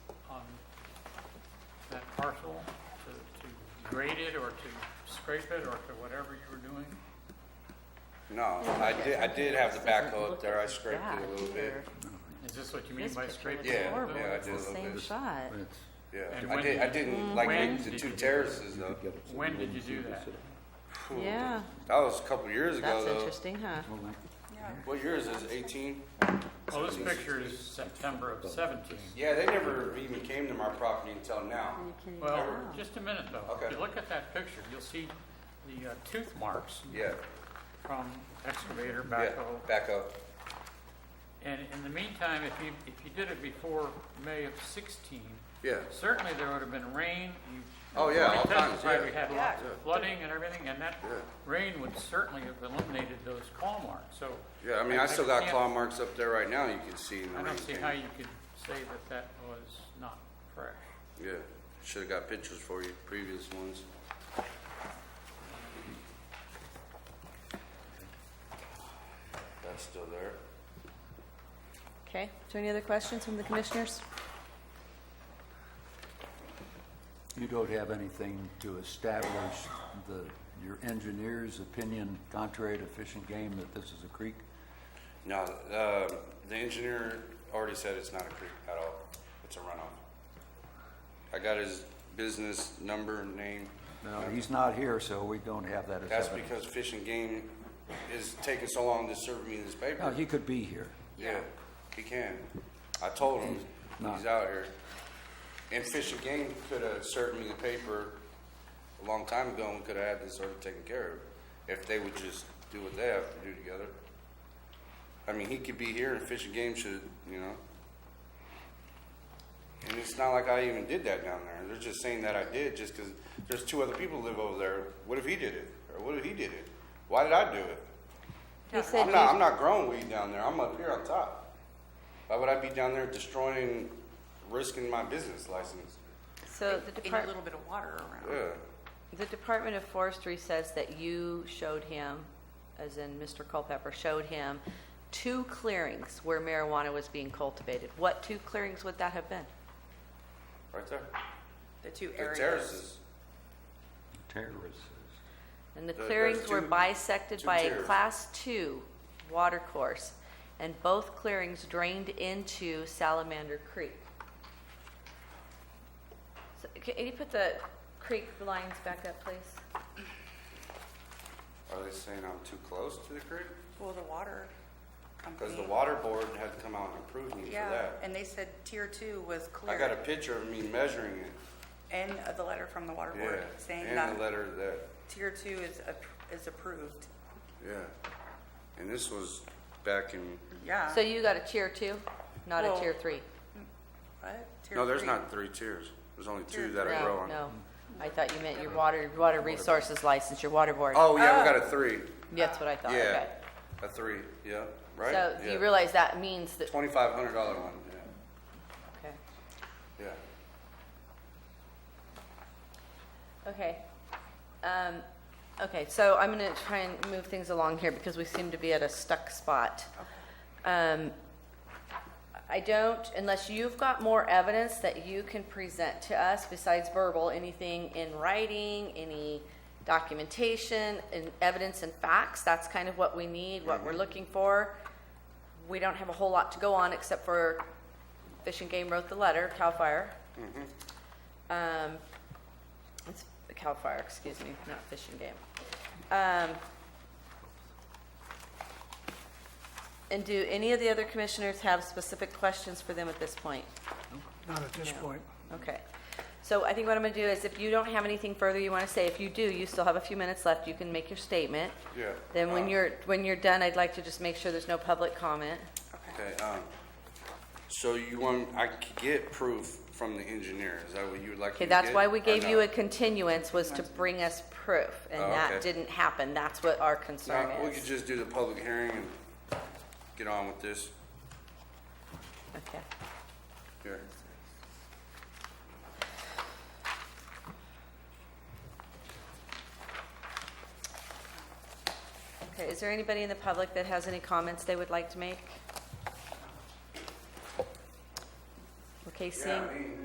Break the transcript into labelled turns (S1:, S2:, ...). S1: grade it or to scrape it or to whatever you were doing?
S2: No, I did, I did have the backhoe up there, I scraped it a little bit.
S1: Is this what you mean
S3: This
S1: by
S3: picture
S1: scrape?
S3: looks
S1: it a
S2: Yeah,
S1: little
S3: horrible.
S1: bit?
S2: yeah, I
S3: It's
S2: did
S3: the
S2: a little
S3: same
S2: bit.
S3: shot.
S1: And
S2: Yeah, I
S1: when
S2: did,
S1: did
S2: I
S1: you-
S3: Mm-hmm.
S2: didn't like
S1: when
S2: the- the
S1: did
S2: two
S1: you-
S2: terraces though.
S1: When did you do that?
S2: Phew,
S3: Yeah,
S2: That was a couple years ago
S3: that's
S2: though.
S3: interesting, huh?
S2: What years is it, eighteen?
S1: Well, this picture is September of 17.
S2: Yeah, they never even came to my property until now.
S3: You can-
S1: Well,
S3: wow.
S1: just a minute though. If
S2: Okay.
S1: you look at that picture, you'll see the uh, tooth marks
S2: Yeah,
S1: from excavator,
S2: yeah,
S1: backhoe.
S2: backhoe.
S1: And in the meantime, if you, if you did it before May of 16,
S2: Yeah,
S1: Certainly, there would have been rain. You-
S2: Oh, yeah,
S1: you
S2: all kinds,
S1: testified
S2: yeah.
S1: We had lots of flooding and everything, and that
S2: Yeah.
S1: rain would certainly have eliminated those claw marks, so.
S2: yeah, I mean, I still got
S1: can't-
S2: claw marks up there right now, you can see in the
S1: I
S2: rain.
S1: don't see
S2: came.
S1: how you could say that that was not fresh.
S2: Yeah, should've got pictures for you, previous ones. That's still there.
S3: Okay, so any other questions from the commissioners?
S4: You don't have anything to establish the, your engineer's opinion contrary to Fish and Game that this is a creek?
S2: No, um, the engineer already said it's not a creek at all. It's a runoff. I got his business number and name.
S4: No, he's not here, so we don't have that as
S2: That's
S4: evidence.
S2: because Fish and Game is taking so long to serve me this
S4: No,
S2: paper.
S4: he could be here.
S2: Yeah, he can. I told him,
S4: No.
S2: he's out here. And Fish and Game could have served me the paper a long time ago and could have had this already taken care of if they would just do what they have to do together. I mean, he could be here and Fish and Game should, you know. And it's not like I even did that down there. They're just saying that I did just because there's two other people live over there. What if he did it? Or what if he did it? Why did I do it?
S3: He said,
S2: I'm not, I'm
S3: you-
S2: not growing weed down there. I'm up here on top. Why would I be down there destroying, risking my business license?
S3: so the
S5: in a
S3: department,
S5: little bit of water around.
S2: Yeah.
S3: the Department of Forestry says that you showed him, as in Mr. Culpepper, showed him two clearings where marijuana was being cultivated. What two clearings would that have been?
S2: Right there.
S5: The two
S2: The
S5: areas.
S2: terraces.
S4: Terrorists.
S3: And the
S2: There-
S3: clearings
S2: there's
S3: were
S2: two-
S3: bisected
S2: two
S3: by a
S2: tiers.
S3: Class 2 water course, and both clearings drained into Salamander Creek. So, Can can you put the creek lines back up, please?
S2: Are they saying I'm too close to the creek?
S5: Well, the water
S2: Because
S5: company.
S2: the water board had to come out and approve me for
S5: Mm. Yeah,
S2: that.
S5: and they said tier two was clear.
S2: I got a picture of me measuring it.
S5: And uh, the letter from the water
S2: Yeah.
S5: board saying
S2: And
S5: that
S2: the letter that,
S5: tier two is, ap- is approved.
S2: yeah. And this was back in,
S5: Yeah.
S3: So you got a tier 2, not a
S5: Well,
S3: tier 3?
S5: What? Tier
S2: no, there's
S5: three.
S2: not three tiers. There's only two
S5: Tier
S2: that I grow
S3: No,
S2: on.
S3: no. I thought you meant your water, water resources license, your water board.
S2: Oh, yeah, we got a three.
S3: That's what I thought,
S2: Yeah.
S3: okay.
S2: A three, yeah, right?
S3: So do
S2: Yeah.
S3: you realize that means that,
S2: Twenty-five hundred dollar one, yeah,
S3: okay.
S2: yeah.
S3: Okay. Um, okay, so I'm gonna try and move things along here because we seem to be at a stuck spot. Um, I don't, unless you've got more evidence that you can present to us besides verbal, anything in writing, any documentation, and evidence and facts, that's kind of what we need, what we're looking for. We don't have a whole lot to go on except for Fish and Game wrote the letter, CAL FIRE. Um, it's CAL FIRE, excuse me, not Fish and Game. Um, And do any of the other commissioners have specific questions for them at this point?
S6: Not at this point.
S3: Okay. So I think what I'm going to do is if you don't have anything further you want to say, if you do, you still have a few minutes left, you can make your statement.
S2: Yeah.
S3: Then when
S2: Uh,
S3: you're, when you're done, I'd like to just make sure there's no public comment.
S2: Okay, um, so you want, I could get proof from the engineer, is that what you would like me
S3: Okay,
S2: to
S3: that's
S2: get,
S3: why we
S2: or
S3: gave you
S2: no?
S3: a continuance was to bring us proof, and
S2: Oh,
S3: that
S2: okay.
S3: didn't happen. That's what our
S2: No,
S3: concern
S2: we could
S3: is.
S2: just do the public hearing and get on with this,
S3: Okay.
S2: yeah.
S3: Okay, is there anybody in the public that has any comments they would like to make? Okay, seeing.